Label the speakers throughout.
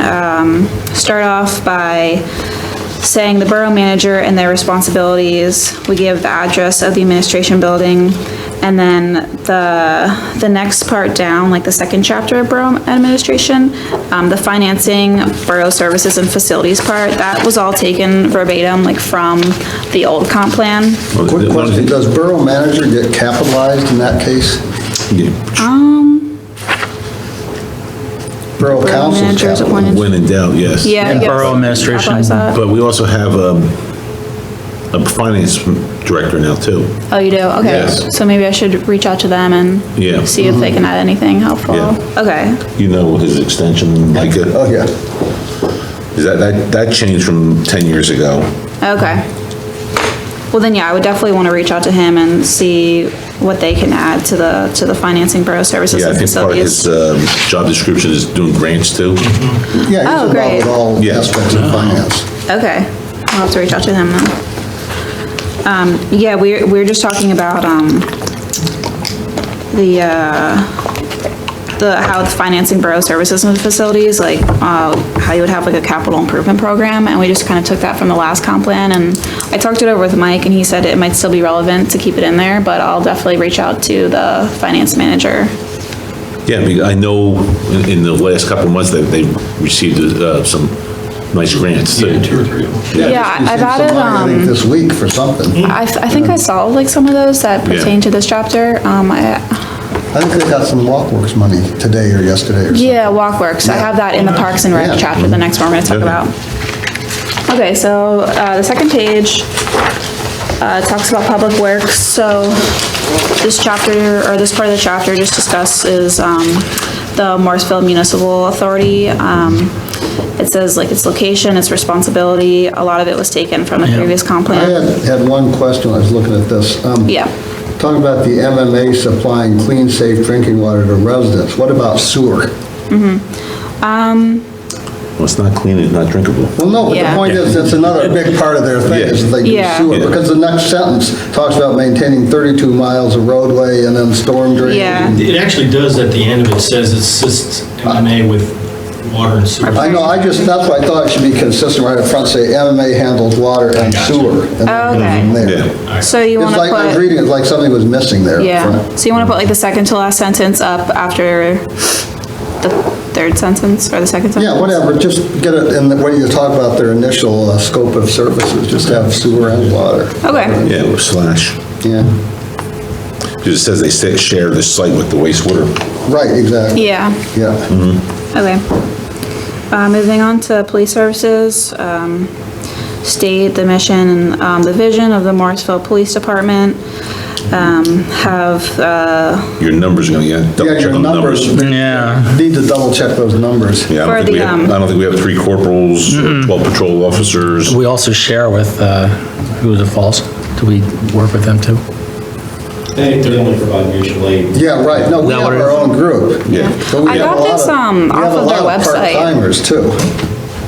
Speaker 1: Um, start off by saying the borough manager and their responsibilities. We give the address of the administration building. And then the, the next part down, like the second chapter of borough administration, um, the financing, borough services and facilities part, that was all taken verbatim, like from the old comp plan.
Speaker 2: Quick question, does borough manager get capitalized in that case? Borough
Speaker 1: Um, Borough
Speaker 2: council's
Speaker 1: manager is appointed.
Speaker 2: capitalized.
Speaker 3: When in doubt, yes.
Speaker 1: Yeah. I
Speaker 4: And
Speaker 1: guess.
Speaker 4: borough administration.
Speaker 1: Capitalize that.
Speaker 3: But we also have um, a finance director now, too.
Speaker 1: Oh, you do? Okay.
Speaker 3: Yes.
Speaker 1: So maybe I should reach out to them
Speaker 3: Yeah. Mm-hmm.
Speaker 1: and see if they can add anything helpful.
Speaker 3: Yeah.
Speaker 1: Okay.
Speaker 3: You know his extension, like, uh,
Speaker 2: Oh, yeah.
Speaker 3: is that, that that changed from 10 years ago.
Speaker 1: Okay. Well, then, yeah, I would definitely want to reach out to him and see what they can add to the, to the financing borough services
Speaker 3: Yeah, I
Speaker 1: and
Speaker 3: think part of his
Speaker 1: facilities.
Speaker 3: um, job description is doing grants, too.
Speaker 5: Mm-hmm.
Speaker 2: Yeah,
Speaker 1: Oh,
Speaker 2: he's involved
Speaker 1: great.
Speaker 2: with all
Speaker 3: Yeah.
Speaker 2: aspects of finance.
Speaker 1: Okay. I'll have to reach out to him then. Um, yeah, we're, we're just talking about, um, the, uh, the, how the financing borough services and facilities, like, uh, how you would have like a capital improvement program, and we just kind of took that from the last comp plan, and I talked it over with Mike, and he said it might still be relevant to keep it in there, but I'll definitely reach out to the finance manager.
Speaker 3: Yeah, because I know in- in the last couple of months that they received uh, some nice grants, too.
Speaker 5: two or three of them.
Speaker 1: Yeah, I-
Speaker 2: He's
Speaker 1: I've
Speaker 2: seen
Speaker 1: added,
Speaker 2: some money, I think
Speaker 1: um,
Speaker 2: this week for something.
Speaker 1: I, I think I saw like some of those that
Speaker 3: Yeah.
Speaker 1: pertain to this chapter, um, I,
Speaker 2: I think they got some walkworks money today or yesterday or something.
Speaker 1: Yeah, walkworks. I have that in the Parks and
Speaker 2: Yeah.
Speaker 1: Rec chapter, the next one we're gonna talk
Speaker 3: Okay.
Speaker 1: about. Okay, so, uh, the second page, uh, talks about public works, so this chapter, or this part of the chapter just discussed is, um, the Morrisville Municipal Authority. Um, it says like its location, its responsibility, a lot of it was taken from the previous comp
Speaker 2: I
Speaker 1: plan.
Speaker 2: had, had one question, when I was looking at this. Um,
Speaker 1: Yeah.
Speaker 2: Talking about the MMA supplying clean, safe drinking water to residents, what about sewer?
Speaker 3: Well, it's not clean, it's not drinkable.
Speaker 2: Well, no, but the
Speaker 1: Yeah.
Speaker 2: point is, that's another big part of their thing, is they do
Speaker 1: Yeah.
Speaker 2: sewer,
Speaker 3: Yeah.
Speaker 2: because the next sentence talks about maintaining 32 miles of roadway and then storm drain.
Speaker 1: Yeah.
Speaker 5: It actually does at the end of it, says assists MMA with water and sewer.
Speaker 2: I know, I just, that's why I thought it should be consistent right up front, say MMA handles water and sewer. and then
Speaker 1: Oh, Okay.
Speaker 2: from there.
Speaker 3: Yeah,
Speaker 1: So you
Speaker 2: It's
Speaker 1: wanna put.
Speaker 2: like, I was reading, it like something was missing there. up
Speaker 1: Yeah,
Speaker 2: front.
Speaker 1: so you want to put like the second to last sentence up after the third sentence or the second sentence?
Speaker 2: Yeah, whatever, just get it, in the when you talk about their initial uh, scope of services, just have sewer and water.
Speaker 1: Okay,
Speaker 3: yeah, or slash,
Speaker 2: Yeah,
Speaker 3: because it says they sa- share the site with the wastewater.
Speaker 2: right, exactly.
Speaker 1: yeah,
Speaker 3: Mm-hmm.
Speaker 2: Yeah.
Speaker 1: okay. Uh, moving on to police services, um, state the mission and, um, the vision of the Morrisville Police Department. Um, have, uh,
Speaker 3: Your numbers are gonna, yeah, double
Speaker 2: Yeah,
Speaker 3: check
Speaker 2: your
Speaker 3: on the numbers.
Speaker 2: numbers,
Speaker 4: Yeah,
Speaker 2: need to double check those numbers.
Speaker 3: Yeah, I
Speaker 1: For
Speaker 3: don't think
Speaker 1: the,
Speaker 3: we have,
Speaker 1: um,
Speaker 3: I don't think we have three corporals, or 12 patrol officers.
Speaker 4: we also share with, uh, who was it, Falls? Do we work with them too?
Speaker 5: They, they only provide mutual aid.
Speaker 2: Yeah, right, no, we
Speaker 4: Is that
Speaker 2: have
Speaker 4: what it
Speaker 2: our
Speaker 4: is?
Speaker 2: own group.
Speaker 3: Yeah.
Speaker 2: But we
Speaker 1: I
Speaker 2: have
Speaker 1: got
Speaker 2: a lot
Speaker 1: this, um,
Speaker 2: we have
Speaker 1: off
Speaker 2: a
Speaker 1: of their
Speaker 2: lot
Speaker 1: website.
Speaker 2: Part-timers, too.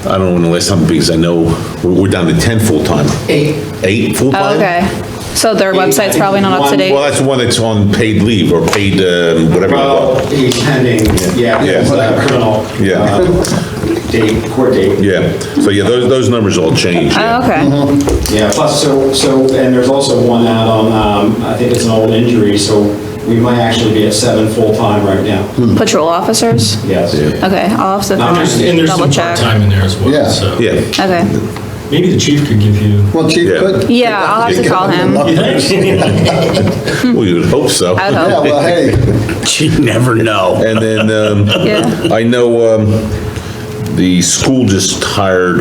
Speaker 3: I don't know the last time, because I know we're we're down to 10 full-time.
Speaker 5: Eight.
Speaker 3: Eight full-time?
Speaker 1: Oh, okay, so their website's probably not up to
Speaker 3: Well,
Speaker 1: date.
Speaker 3: that's the one that's on paid leave or paid, um, whatever. you
Speaker 5: Well,
Speaker 3: call it.
Speaker 5: he's pending, yeah,
Speaker 3: Yeah.
Speaker 5: it's a criminal.
Speaker 3: Yeah.
Speaker 5: uh, Date, court date.
Speaker 3: Yeah, so yeah, those, those numbers all change. yeah.
Speaker 1: Oh, okay,
Speaker 5: Yeah, plus, so, so, and there's also one out on, um, I think it's an old injury, so we might actually be at seven full-time right now.
Speaker 3: Hmm.
Speaker 1: patrol officers?
Speaker 5: Yes.
Speaker 1: Okay, I'll have to
Speaker 5: Now, there's- And there's
Speaker 1: double
Speaker 5: some
Speaker 1: check.
Speaker 5: part-time in there as
Speaker 2: Yeah.
Speaker 5: well, so.
Speaker 3: Yeah,
Speaker 1: Okay.
Speaker 5: Maybe the chief could give you.
Speaker 2: Well, Chief
Speaker 3: Yeah.
Speaker 2: could.
Speaker 1: Yeah, I'll have to call him.
Speaker 2: Yeah,
Speaker 3: well, you would hope so.
Speaker 1: Hmm. I would hope.
Speaker 2: well, hey,
Speaker 4: You never know.
Speaker 3: And then, um,
Speaker 1: Yeah.
Speaker 3: I know, um, the school just hired,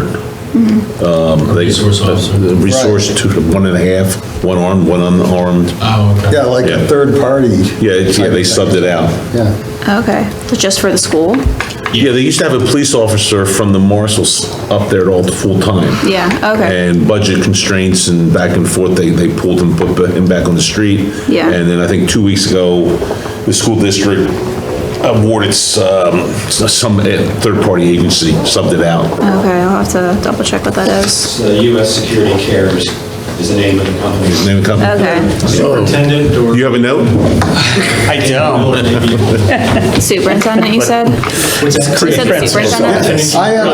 Speaker 3: um, they.
Speaker 5: Resource officer.
Speaker 3: the Resource to one and a half, one armed, one unarmed.
Speaker 5: Oh, okay.
Speaker 2: yeah, like
Speaker 3: Yeah.
Speaker 2: a third party.
Speaker 3: Yeah, it's- yeah, they subbed it out.
Speaker 2: Yeah,
Speaker 1: Okay, so just for the school?
Speaker 3: Yeah, they used to have a police officer from the marshals up there all the full time.
Speaker 1: Yeah, okay.
Speaker 3: And budget constraints and back and forth, they, they pulled him, put him back on the street.
Speaker 1: Yeah.
Speaker 3: And then I think two weeks ago, the school district awarded um, some eh, third-party agency, subbed it out.
Speaker 1: Okay, I'll have to double check what that is.
Speaker 5: So U.S. Security Cares is the name of the company.
Speaker 3: Name of the company?
Speaker 1: Okay,
Speaker 5: Superintendent or?
Speaker 3: You have a note?
Speaker 4: I don't.
Speaker 5: Maybe-
Speaker 1: superintendent, you said?
Speaker 5: What's that?
Speaker 1: You said superintendent?
Speaker 2: I have